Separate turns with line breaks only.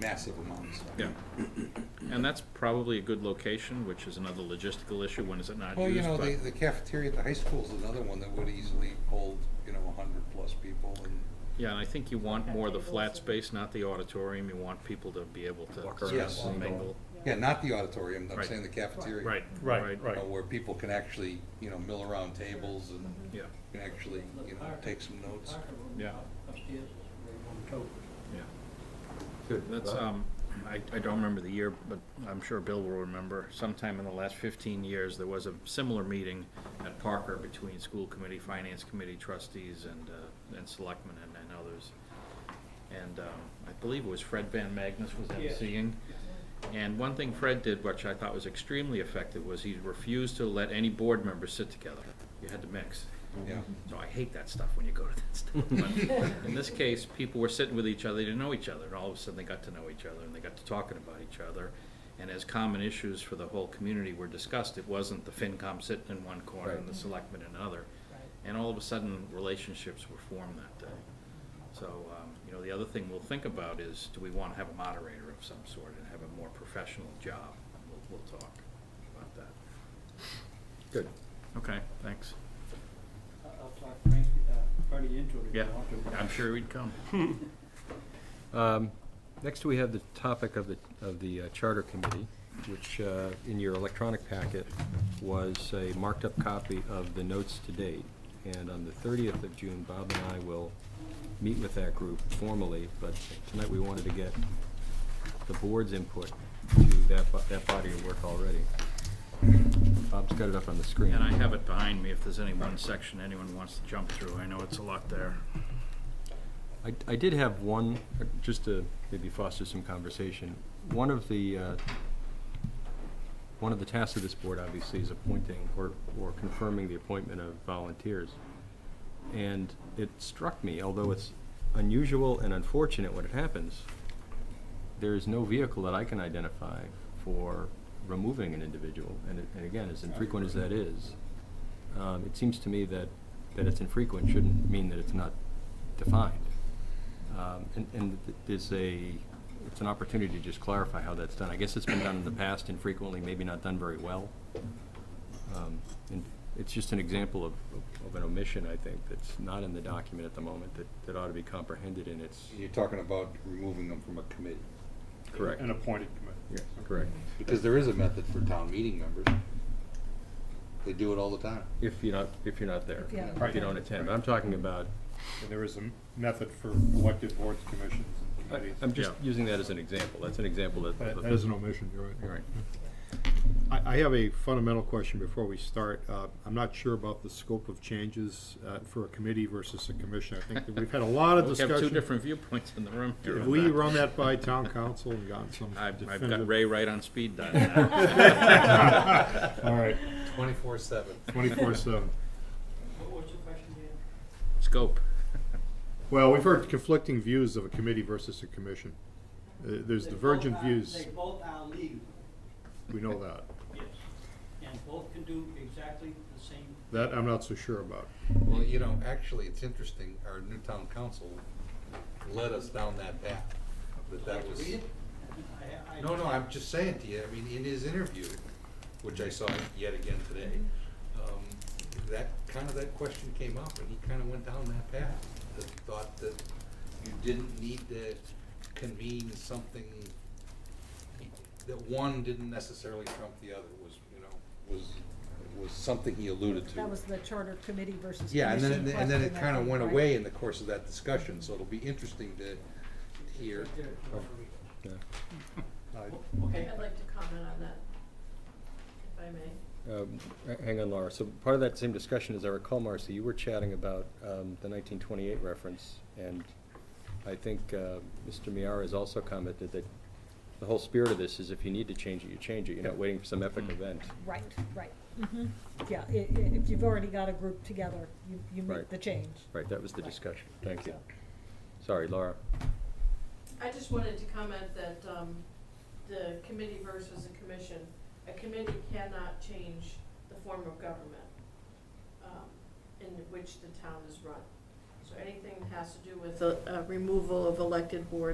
massive amounts.
Yeah. And that's probably a good location, which is another logistical issue, when is it not
Well, you
used?
know, the,
but-
the cafeteria at the high school is another one that would easily hold, you know, a hundred plus people and
Yeah, and I think you want more of the
Tables
flat
and-
space, not the auditorium, you want people to be able to
Walk
sort
around.
of mingle.
yeah, not the auditorium. I'm
Right.
saying the cafeteria.
Right,
Right,
right.
You know,
right.
where people can actually, you know, mill around tables and
Mm-hmm. Yeah,
can actually, you know, take some notes.
yeah,
upstairs, right on top.
yeah.
Good.
That's, um, I, I don't remember the year, but I'm sure Bill will remember, sometime in the last fifteen years, there was a similar meeting at Parker between school committee, finance committee trustees and, uh, and selectmen and, and others. And, um, I believe it was Fred Van Magnus was emceeing. And one thing Fred did, which I thought was extremely effective, was he refused to let any board members sit together. You had to mix.
Yeah.
So I hate that stuff when you go to that stuff. But in this case, people were sitting with each other, they didn't know each other, and all of a sudden they got to know each other and they got to talking about each other. And as common issues for the whole community were discussed, it wasn't the FinCom sitting in one corner and the selectmen in another. And all of a sudden, relationships were formed that day. So, um, you know, the other thing we'll think about is, do we wanna have a moderator of some sort and have a more professional job? We'll, we'll talk about that.
Good.
Okay, thanks.
I- I'll talk Frank, uh, Freddie into it if
Yeah,
you want to.
I'm sure he'd come.
Um, Next, we have the topic of the, of the uh, Charter Committee, which uh, in your electronic packet was a marked-up copy of the notes to date. And on the 30th of June, Bob and I will meet with that group formally, but tonight we wanted to get the board's input to that, bo- that body of work already. Bob's got it up on the screen.
And I have it behind me if there's any one section anyone wants to jump through. I know it's a lot there.
I, I did have one, uh, just to maybe foster some conversation. One of the, uh, one of the tasks of this board obviously is appointing or, or confirming the appointment of volunteers. And it struck me, although it's unusual and unfortunate when it happens, there is no vehicle that I can identify for removing an individual. And, it- and again, as infrequent as that is, um, it seems to me that, that it's infrequent shouldn't mean that it's not defined. Um, and, and th- there's a, it's an opportunity to just clarify how that's done. I guess it's been done in the past infrequently, maybe not done very well. Um, and it's just an example of, of- of an omission, I think, that's not in the document at the moment that, that ought to be comprehended in its.
You're talking about removing them from a committee.
Correct.
An appointed committee.
Yeah, correct.
Because there is a method for town meeting members. They do it all the time.
If you're not, if you're not there,
If you haven't
if you don't
attended.
attend. But I'm talking about,
And there is a m- method for elected boards, commissions, and
I-
committees.
I'm just
Yeah.
using that as an example. That's an example that.
That
of
that
the-
is an omission, you're
All
right.
right.
I, I have a fundamental question before we start. Uh, I'm not sure about the scope of changes, uh, for a committee versus a commission. I think that we've had a lot of
We have two
discussion.
different viewpoints in the room. here
Have
on
we
that.
run that by town council and gotten some
I've, I've got
definitive-
Ray right on speed dial now.
All right,
Twenty-four seven.
twenty-four seven.
What- What's your question, Dan?
Scope.
Well, we've heard conflicting views of a committee versus a commission. Uh, there's
They both
divergent
are-
views,
They both are legal,
we know that.
yes, and both can do exactly the same.
That I'm not so sure about.
Well, you know, actually, it's interesting, our new town council led us down that path, that that was.
Read it? I- I-
No, no, I'm just saying to you, I mean, in his interview, which I saw yet again today, um, that, kind of that question came up, and he kind of went down that path, the thought that you didn't need to convene something, that one didn't necessarily trump the other, was, you know, was, was something he alluded to.
That was the charter committee versus
Yeah, and then,
commission
and then it
question, I
kind of
think,
went
right?
away in the course of that discussion, so it'll be interesting to hear. Uh,
Right there, you want to read it.
Yeah.
I-
Okay.
I'd like to comment on that, if I may.
Um, h- Hang on, Laura. So part of that same discussion, as I recall, Marcy, you were chatting about um, the 1928 reference, and I think uh, Mr. Miara has also commented that the whole spirit of this is if you need to change it, you change it. You're not waiting for some epic event.
Right, right, hmm yeah, i- i- if you've already got a group together, you, you
Right.
make the change.
Right, that was the discussion. Thank you. Sorry, Laura.
I just wanted to comment that, um, the committee versus a commission, a committee cannot change the form of government, um, in which the town is run. So anything that has to do with the, uh, removal of elected boards